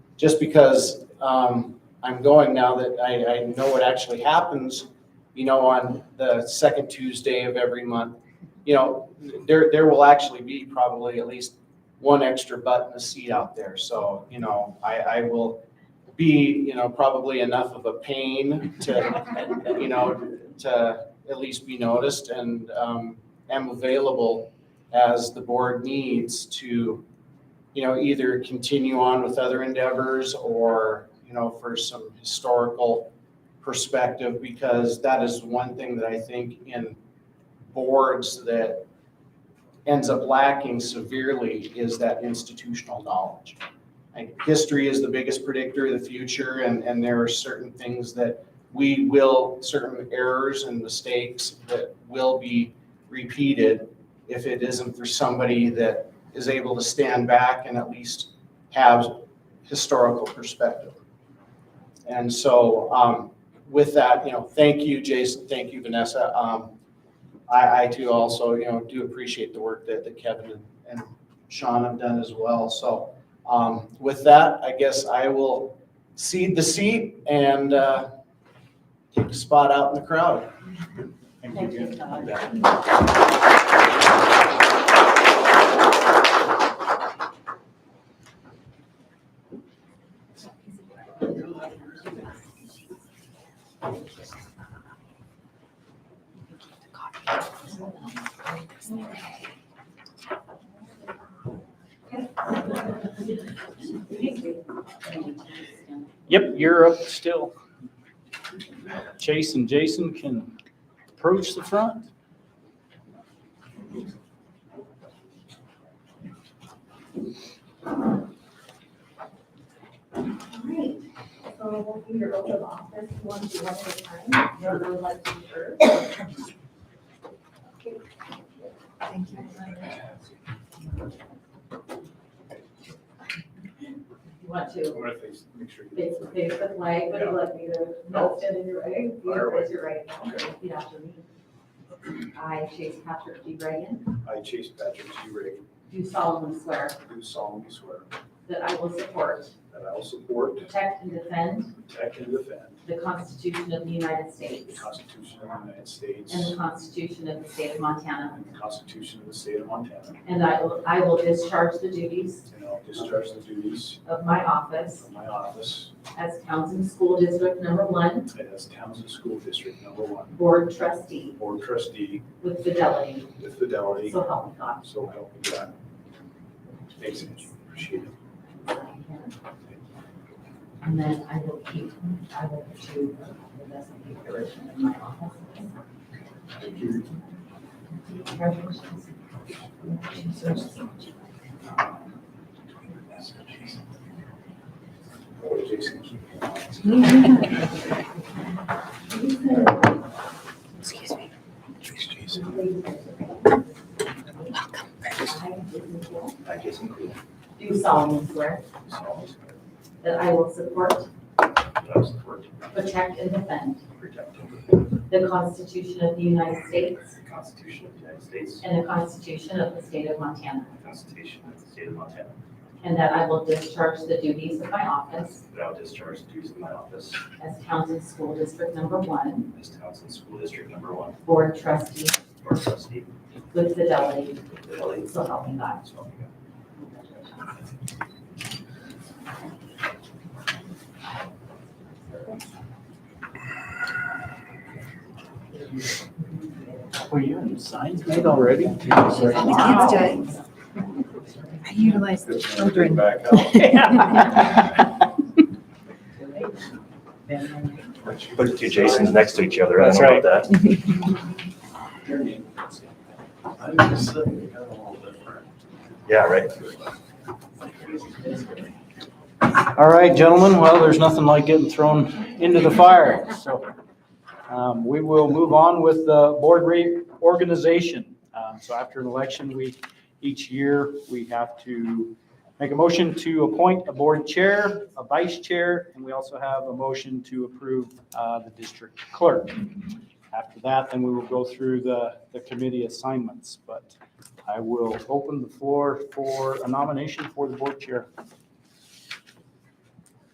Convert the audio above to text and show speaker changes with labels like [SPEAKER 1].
[SPEAKER 1] just because um, I'm going now that I, I know what actually happens, you know, on the second Tuesday of every month, you know, there, there will actually be probably at least one extra butt in the seat out there. So, you know, I, I will be, you know, probably enough of a pain to, you know, to at least be noticed and um, am available as the board needs to, you know, either continue on with other endeavors or, you know, for some historical perspective, because that is one thing that I think in boards that ends up lacking severely is that institutional knowledge. Like, history is the biggest predictor of the future, and, and there are certain things that we will, certain errors and mistakes that will be repeated if it isn't for somebody that is able to stand back and at least have historical perspective. And so, um, with that, you know, thank you, Jason, thank you, Vanessa. Um, I, I too also, you know, do appreciate the work that, that Kevin and- and Sean have done as well. So, um, with that, I guess I will cede the seat and, uh, take a spot out in the crowd.
[SPEAKER 2] Thank you, Todd.
[SPEAKER 3] Yep, you're up still. Chase and Jason can approach the front.
[SPEAKER 4] Alright, so we'll do your oath of office one to one at a time. Your little legs in first. Thank you.
[SPEAKER 2] You want to
[SPEAKER 5] What if they s- make sure? you-
[SPEAKER 2] face to face the flag, but you let me to not stand in your way? You
[SPEAKER 5] Fire away.
[SPEAKER 2] raise your right hand, and repeat after me. I, Chase Patrick D. Reagan,
[SPEAKER 5] I, Chase Patrick G. Reagan,
[SPEAKER 2] do solemnly swear
[SPEAKER 5] do solemnly swear
[SPEAKER 2] that I will support,
[SPEAKER 5] that I will support,
[SPEAKER 2] protect, and defend
[SPEAKER 5] protect, and defend
[SPEAKER 2] the Constitution of the United
[SPEAKER 5] the
[SPEAKER 2] States
[SPEAKER 5] Constitution of the United States
[SPEAKER 2] and the Constitution of the State of Montana,
[SPEAKER 5] and the Constitution of the State of Montana,
[SPEAKER 2] and I will, I will discharge the duties
[SPEAKER 5] and I'll discharge the duties
[SPEAKER 2] of my office
[SPEAKER 5] of my office
[SPEAKER 2] as Townsend School District Number One
[SPEAKER 5] as Townsend School District Number One
[SPEAKER 2] Board Trustee
[SPEAKER 5] Board Trustee
[SPEAKER 2] with fidelity,
[SPEAKER 5] with fidelity,
[SPEAKER 2] so help me God.
[SPEAKER 5] so help me God. Thanks, Angie, appreciate it.
[SPEAKER 2] And then I will keep, I will do the best of the version in my office.
[SPEAKER 5] Thank you.
[SPEAKER 2] Congratulations.
[SPEAKER 5] Oh, Jason, keep your eyes. I, Jason Cool,
[SPEAKER 2] Do solemnly swear
[SPEAKER 5] do solemnly swear
[SPEAKER 2] that I will support,
[SPEAKER 5] that I will support,
[SPEAKER 2] protect, and defend
[SPEAKER 5] protect, and defend
[SPEAKER 2] the Constitution of the United States
[SPEAKER 5] The Constitution of the United States.
[SPEAKER 2] and the Constitution of the State of Montana,
[SPEAKER 5] And the Constitution of the State of Montana.
[SPEAKER 2] and that I will discharge the duties of my office
[SPEAKER 5] That I will discharge the duties of my office
[SPEAKER 2] as Townsend School District Number One
[SPEAKER 5] as Townsend School District Number One,
[SPEAKER 2] Board Trustee
[SPEAKER 5] Board Trustee,
[SPEAKER 2] with fidelity,
[SPEAKER 5] Lily.
[SPEAKER 2] so help me God.
[SPEAKER 3] Were you in signs made already?
[SPEAKER 6] The kids did. I utilize the children.
[SPEAKER 5] Back up.
[SPEAKER 7] Put the two Jasons next to each other, I don't know about that.
[SPEAKER 5] I'm just sitting, kind of a little different.
[SPEAKER 7] Yeah, right.
[SPEAKER 3] All right, gentlemen, well, there's nothing like getting thrown into the fire, so um, we will move on with the board reorganization. Um, So after an election, we, each year, we have to make a motion to appoint a board chair, a vice chair, and we also have a motion to approve uh, the district clerk. After that, then we will go through the, the committee assignments, but I will open the floor for a nomination for the board chair.